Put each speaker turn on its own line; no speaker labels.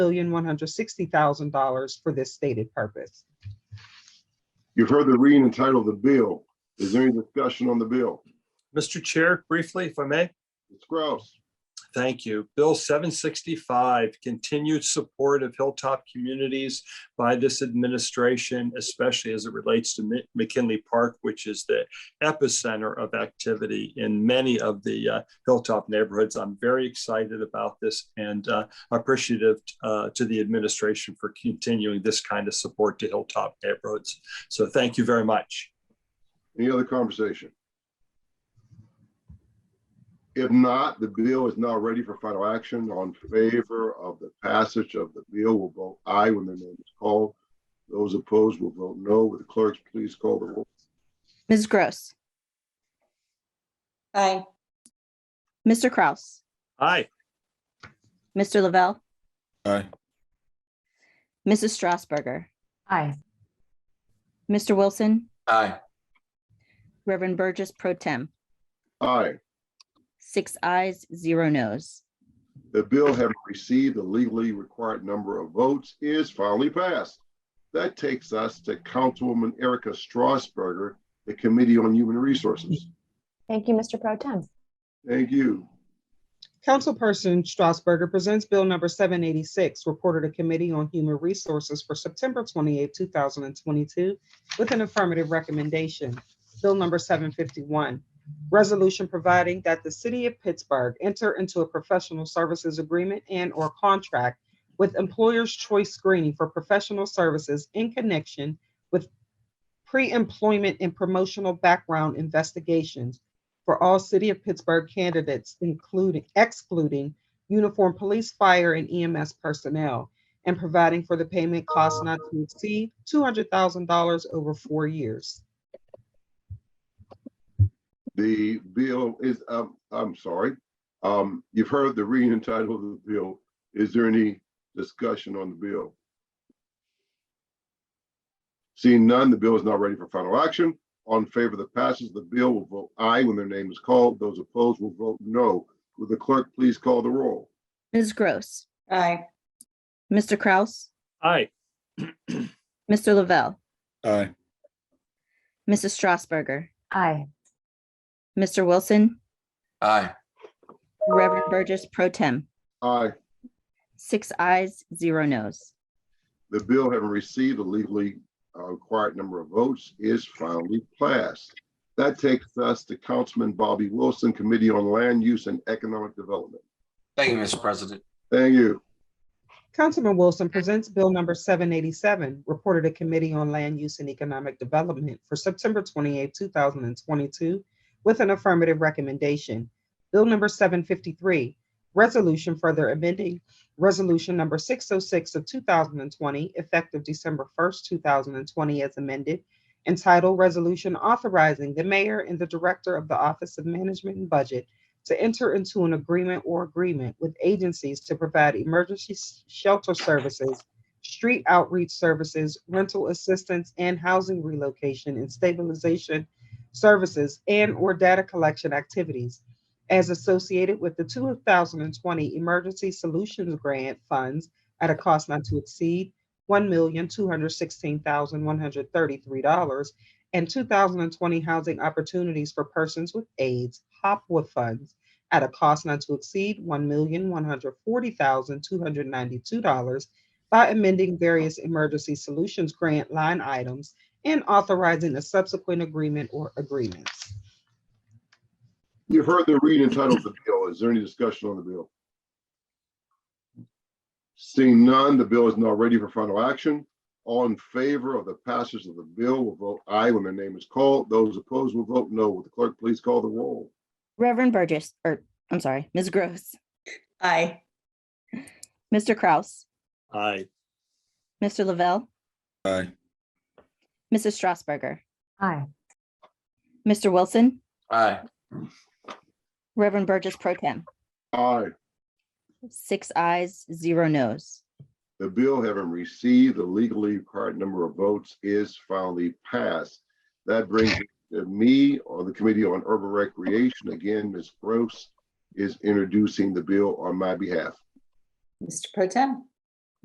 million one hundred sixty thousand dollars for this stated purpose.
You've heard the reading and title of the bill. Is there any discussion on the bill?
Mr. Chair, briefly, if I may,
Ms. Kraus,
thank you. Bill seven sixty-five, continued support of hilltop communities by this administration, especially as it relates to Mi- McKinley Park, which is the epicenter of activity in many of the uh, hilltop neighborhoods. I'm very excited about this and uh, appreciative uh, to the administration for continuing this kind of support to hilltop neighborhoods. So thank you very much.
any other conversation? If not, the bill is now ready for final action. On favor of the passage of the bill will vote aye when their name is called. Those opposed will vote no. With the clerks, please call the roll.
Ms. Gross.
Aye.
Mr. Kraus.
Aye.
Mr. Lavelle.
Aye.
Mrs. Strasburger.
Aye.
Mr. Wilson.
Aye.
Reverend Burgess Pro Tem.
Aye.
Six eyes, zero nos.
The bill having received the legally required number of votes is finally passed. That takes us to Councilwoman Erica Strasberger, the Committee on Human Resources.
Thank you, Mr. Pro Tem.
Thank you.
Councilperson Strasburger presents Bill number seven eighty-six, reported to Committee on Human Resources for September 28, thousand and twenty-two, with an affirmative recommendation. Bill number seven fifty-one, resolution providing that the city of Pittsburgh enter into a professional services agreement and/or contract with employer's choice screening for professional services in connection with pre-employment and promotional background investigations for all City of Pittsburgh candidates, including excluding uniform police, fire, and EMS personnel, and providing for the payment cost not to exceed two hundred thousand dollars over four years.
The bill is, um, I'm sorry, um, you've heard the reading and title of the bill. Is there any discussion on the bill? Seeing none, the bill is now ready for final action. On favor of the passage, of the bill will vote aye when their name is called. Those opposed will vote no. Will the clerk please call the roll?
Ms. Gross.
Aye.
Mr. Kraus.
Aye.
Mr. Lavelle.
Aye.
Mrs. Strasburger.
Aye.
Mr. Wilson.
Aye.
Reverend Burgess Pro Tem.
Aye.
Six eyes, zero nos.
The bill having received a legally uh, required number of votes is finally passed. That takes us to Councilman Bobby Wilson, Committee on Land Use and Economic Development.
Thank you, Mr. President.
Thank you.
Councilman Wilson presents Bill number seven eighty-seven, reported to Committee on Land Use and Economic Development for September 28, thousand and twenty-two, with an affirmative recommendation. Bill number seven fifty-three, resolution further amending Resolution number six oh six of two thousand and twenty, effective December first, two thousand and twenty, as amended, entitled Resolution Authorizing the Mayor and the Director of the Office of Management and Budget to enter into an agreement or agreement with agencies to provide emergency s- shelter services, street outreach services, rental assistance, and housing relocation and stabilization services and/or data collection activities as associated with the 2020 Emergency Solutions Grant funds at a cost not to exceed $1,216,133 and 2020 Housing Opportunities for Persons with AIDS, HOPWA funds at a cost not to exceed one million one hundred forty thousand two hundred ninety-two dollars by amending various emergency solutions grant line items and authorizing a subsequent agreement or agreements.
You've heard the reading and title of the bill. Is there any discussion on the bill? Seeing none, the bill is now ready for final action. All in favor of the passage of the bill will vote aye when their name is called. Those opposed will vote no. Will the clerk please call the roll?
Reverend Burgess, or I'm sorry, Ms. Gross.
Aye.
Mr. Kraus.
Aye.
Mr. Lavelle.
Aye.
Mrs. Strasburger.
Aye.
Mr. Wilson.
Aye.
Reverend Burgess Pro Tem.
Aye.
Six eyes, zero nos.
The bill having received the legally required number of votes is finally passed. That brings it to me on the Committee on Urban Recreation. Again, Ms. Gross is introducing the bill on my behalf.
Mr. Pro Tem,